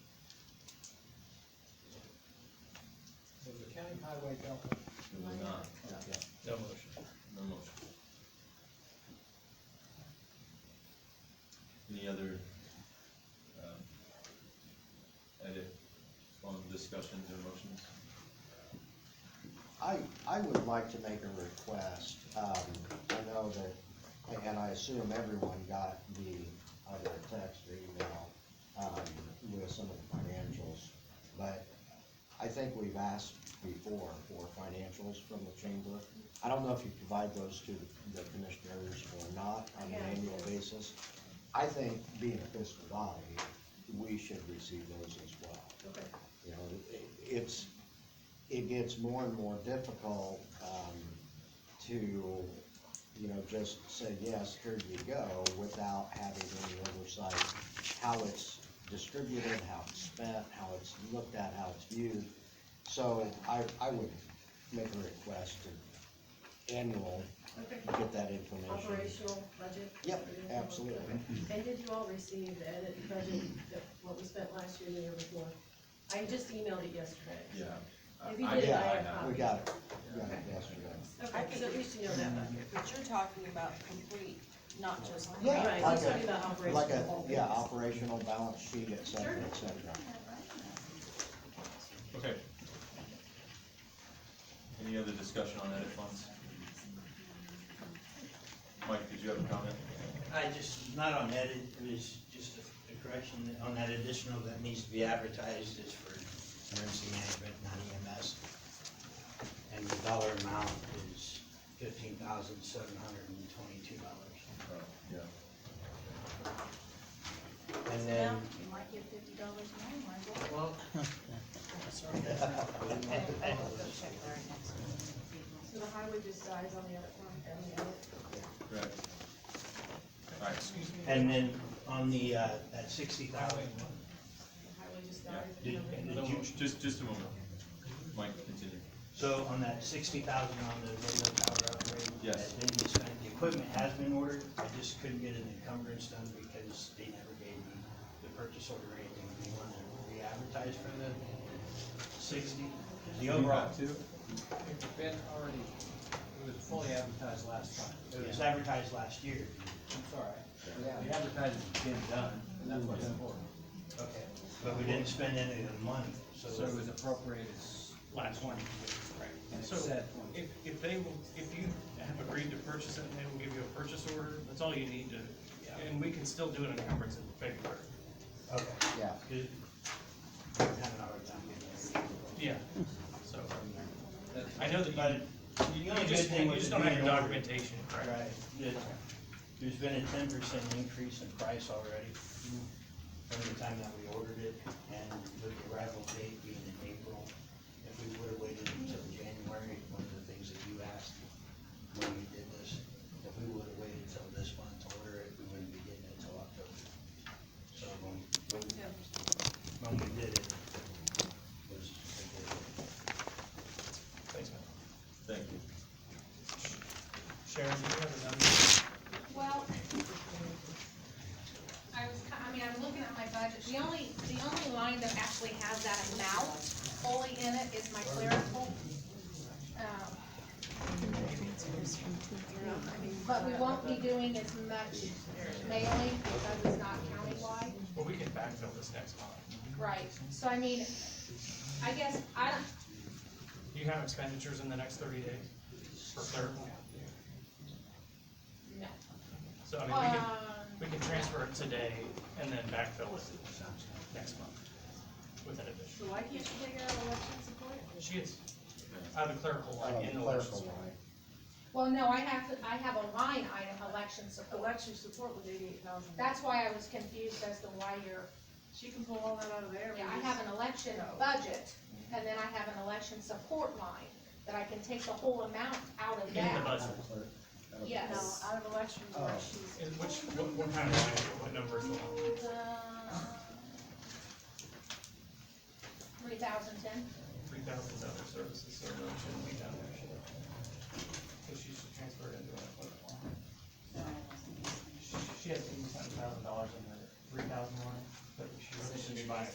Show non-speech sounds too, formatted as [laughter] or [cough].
County Highway bill. It was not, Yeah. No motion. no motion. Any other, um, edit on discussions or motions? I, I would like to make a request, um, I know that, and I assume everyone got the other text or email, um, with some of the financials, but I think we've asked before for financials from the chamber. I don't know if you provide those to the commissioners or not on an Yeah. annual basis. I think being a fiscal body, we should receive those as well. Okay. You know, it- it's, it gets more and more difficult, um, to, you know, just say, yes, here you go, without having any oversight, how it's distributed, how it's spent, how it's looked at, how it's viewed. So I, I would make a request to annual, Okay. get that information. Operational budget? Yep, absolutely. And did you all receive the edit budget, that- what we spent last year and the year before? I just emailed it yesterday. Yeah. If you I- I- did, Yeah, I have a We copy. got it, we got it yesterday. Okay, so at least you know that bucket. But you're talking about complete, not just. Yeah, Right, like he's talking a- about Like a, operational. yeah, operational balance sheet, et cetera, et cetera. Okay. Any other discussion on edit funds? Mike, did you have a comment? I just, not on that, it was just a correction, on that additional that needs to be advertised is for emergency management, not EMS. And the dollar amount is fifteen thousand seven hundred and twenty-two dollars. Oh, yeah. And then, You might get fifty dollars more, might as well, well. I'll go check there next So the highway just dies on the other one, and the other? Correct. Alright, excuse me. and then on the, uh, that sixty thousand, The highway just dies. did, did you, Just, just a moment. Mike, continue. So on that sixty thousand on the radio tower upgrade? Yes. That didn't get spent, the equipment has been ordered, I just couldn't get an encumbrance done because they never gave me the purchase order or anything. They wanted to re-advertise for the sixty, the overall, too? It's been already, it was fully advertised last time. it was advertised last year. It's all right. The advertising's been done, and that's what's important. Okay. But we didn't spend any of the money, so. So it was appropriated last one, and it So, said if, if they will, if you have agreed to purchase it and they will give you a purchase order, that's all you need to, and we can still do an encumbrance in February. Okay. Yeah. Good. I'm having a hard time getting Yeah, so, That's- I know that there. you, But the you only good just, thing you was it just don't have being your ordered. documentation, correct? Right, It- there's been a ten percent increase in price already from the time that we ordered it, and with the arrival date being in April, if we would've waited until January, one of the things that you asked when we did this, if we would've waited till this month to order it, we wouldn't be getting it till October. So when, when, when we did it, it was, it Thanks, man. Thank you. Sharon, do you have a number? Well, [laughs] I was, ki- I mean, I'm looking at my budget, the only, the only line that actually has that amount fully in it is my clerical. Um, But we won't be doing as much mailing because it's not countywide. Well, we can backfill this next month. Right. So I mean, I guess, I, don't- Do you have expenditures in the next thirty days for clerical? no. So I mean, we can, Um, we can transfer it today and then backfill it next month with an addition. So why can't you take out election support? She is, I have a clerical line in the Oh, Clerical list. line. Well, no, I have, to- I have a line item, election support. Election support was eighty-eight thousand. That's why I was confused as to why you're She can pull all that out of there. Yeah, I have an election budget, and then I have an election support line, that I can take the whole amount out of In the that. budget, No, Yes. out of election, Oh. she's. Is- which, what, what kind of line, is it? what number is the line? Three thousand ten, three thousand other services, so it shouldn't be down there, should it? So she should transfer it into a fund. She she has eighty-seven thousand dollars in the three thousand one, but she really should be buying